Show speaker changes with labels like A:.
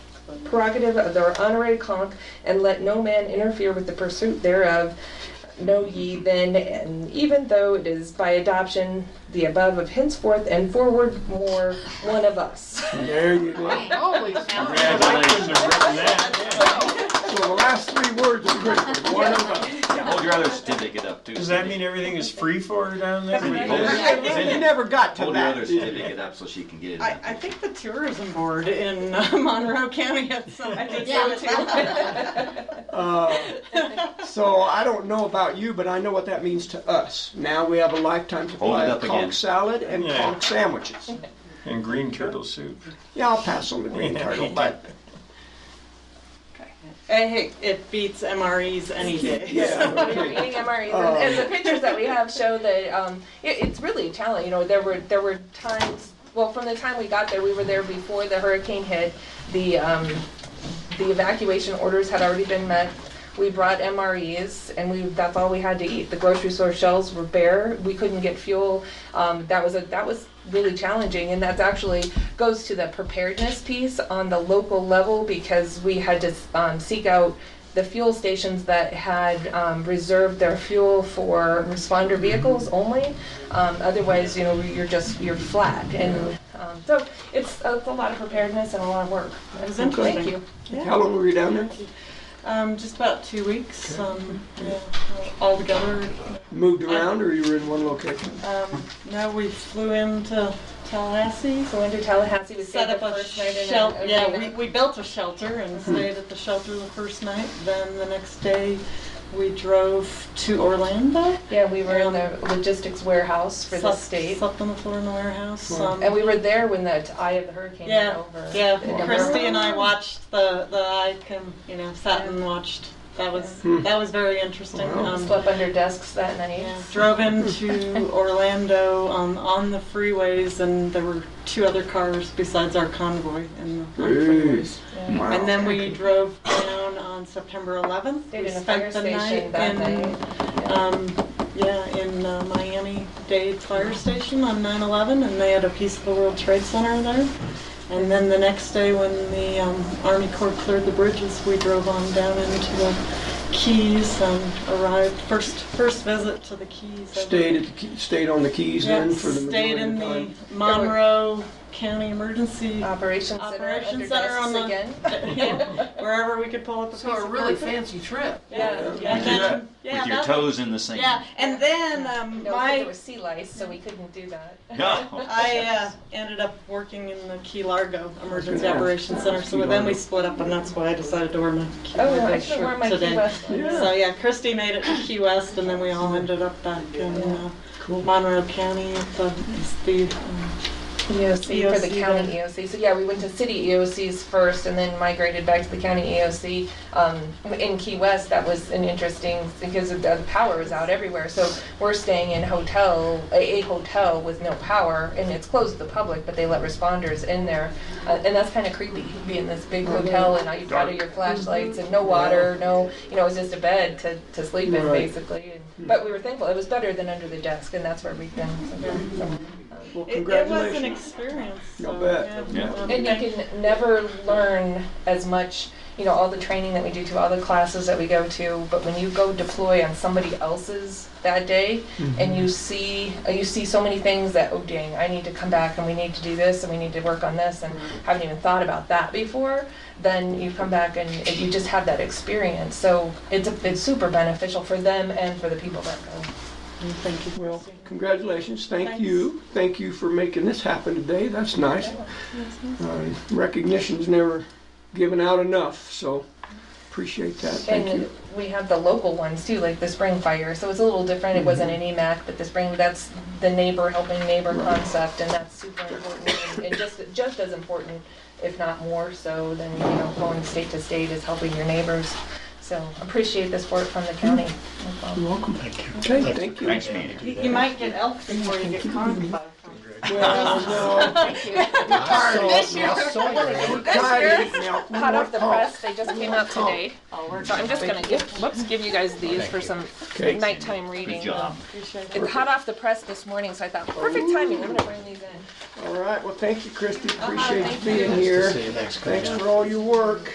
A: prerogative of their honorary conch, and let no man interfere with the pursuit thereof. Know ye then, and even though it is by adoption, the above of henceforth and forward more one of us.
B: There you go.
C: Holy cow.
D: Congratulations, written that.
B: So the last three words are great. One of us.
E: Hold your other certificate up too.
D: Does that mean everything is free for her down there?
E: Yeah.
B: You never got to
E: Hold your other
B: that.
E: certificate up so she can get it.
F: I, I think the tourism board in uh, Monroe County has some. I think so too.
B: Uh, So I don't know about you, but I know what that means to us. Now we have a lifetime supply
E: Hold it
B: of
E: up again.
B: conch salad and
D: Yeah.
B: conch sandwiches.
D: And green turtle soup.
B: Yeah, I'll pass on the green turtle, but
F: Hey, hey, it beats MREs any day.
B: yeah.
A: We're eating MREs, and, and the pictures that we have show that um, it, it's really a challenge. You know, there were there were times. Well, from the time we got there, we were there before the hurricane hit. The um, the evacuation orders had already been met. We brought MREs, and we that's all we had to eat. The grocery store shelves were bare. We couldn't get fuel. Um, that was a that was really challenging, and that's actually goes to the preparedness piece on the local level because we had to um, seek out the fuel stations that had um, reserved their fuel for responder vehicles only. Um, otherwise, you know, you're just you're flat, and um, so it's, it's a lot of preparedness and a lot of work.
F: was
A: And Thank
F: interesting.
A: you.
B: How long were you down there?
F: Um, just about two weeks, um, yeah, all together.
B: Moved around or you were in one location?
F: Um, now we flew into Tallahassee,
A: So into Tallahassee, we
F: set
A: stayed the
F: up a
A: first night in an
F: shelter. Yeah, we,
A: overnight.
F: we built a shelter and stayed at the shelter the first night. Then the next day, we drove to Orlando.
A: yeah, we were in the logistics warehouse for the
F: Slept-
A: state,
F: Slept on the floor in the warehouse.
B: Wow.
F: um,
A: and we were there when the eye of the hurricane
F: Yeah,
A: went over.
F: yeah.
A: Wow.
F: Christy and I watched the the I can you know sat and watched. That was that was very interesting.
B: Wow.
F: Um,
A: Slept under desks that night.
F: yeah, drove into Orlando on on the freeways, and there were two other cars besides our convoy in the on the freeways.
B: Wow.
F: And then we drove down on September 11th.
A: Stayed
F: we
A: in a fire
F: spent the
A: station
F: night
A: that
F: in,
A: night.
F: Um, yeah, in uh, Miami Dade Fire Station on 9/11, and they had a piece of the World Trade Center there. And then the next day, when the um, Army Corps cleared the bridges, we drove on down into the Keys and arrived first first visit to the Keys. ever.
B: Stayed at the, Key- stayed on the Keys
F: Yeah,
B: then for the
F: stayed
B: majority
F: in
B: of
F: the
B: time?
F: Monroe County Emergency
A: Operations Center under
F: Operations Center
A: desks
F: on the
A: again.
F: yeah, wherever we could pull up a
C: So
F: piece
C: a
F: of
C: really
F: carpet.
C: fancy trip.
A: Yeah.
F: Yeah, and then, yeah,
E: With your
F: that-
E: toes in the sand.
F: yeah, and then um,
A: No, 'cause there
F: my
A: was sea lice, so we couldn't do that.
E: No.
F: I uh, ended up working in the Key Largo Emergency
B: Yeah.
F: Operations Center, so then we split up, and that's why I decided to wear my Key
A: Oh,
F: Largo
A: I should've worn
F: shirt
A: my Key
F: today.
A: West one.
F: So yeah, Christy made it to Key West, and then we all ended up back in uh, Monroe County at the the um,
A: EOC E for the
F: EOC
A: county EOC. So yeah, we went to city EOCs first and then migrated back to the county EOC. Um, in Key West, that was an interesting, because of the the power was out everywhere. So we're staying in hotel, a, a hotel with no power and it's closed to the public, but they let responders in there. Uh, and that's kind of creepy, being this big hotel and all you've got are your flashlights and no water, no, you know, it was just a bed to, to sleep in
B: Right.
A: basically. And- But we were thankful, it was better than under the desk and that's where we've been. so-
B: Well,
F: It, it was an
B: congratulations.
F: experience.
B: I'll
F: so,
B: bet.
E: Yeah.
F: um,
A: And you can never learn as much, you know, all the training that we do to, all the classes that we go to, but when you go deploy on somebody else's that day and you see, uh, you see so many things that, oh dang, I need to come back and we need to do this and we need to work on this and haven't even thought about that before, then you come back and it- you just have that experience. So it's, a- it's super beneficial for them and for the people that go.
F: Thank you.
B: Well, congratulations, thank
F: Thanks.
B: you. Thank you for making this happen today, that's nice. Uh, Recognition's never given out enough, so appreciate that, thank
A: And
B: you.
A: we have the local ones too, like the spring fire, so it's a little different, it wasn't an EMAC, but the spring, that's the neighbor helping neighbor
B: Mm-hmm. Right.
A: concept, and that's super important, and- and just, just as important, if not more so, than, you know, going state to state is helping your neighbors. So appreciate the support from the county. as well.
B: You're welcome. Okay, thank you.
E: Nice meeting you.
F: You, you might get elk before you get conked by a conch.
B: Well, uh, no,
C: This year.
B: we're tired of it now. We
A: Hot
B: want
A: off the
B: conch.
A: press, they just came out today. So I'm just gonna give, whoops, give you guys these for some
B: Okay.
A: nighttime reading.
E: Good job.
F: Appreciate it.
A: It's hot off the press this morning, so I thought, perfect timing, I'm gonna bring these in.
B: All right, well, thank you, Christie, appreciate
A: thank
B: you being
A: you.
B: here. Thanks for all your work.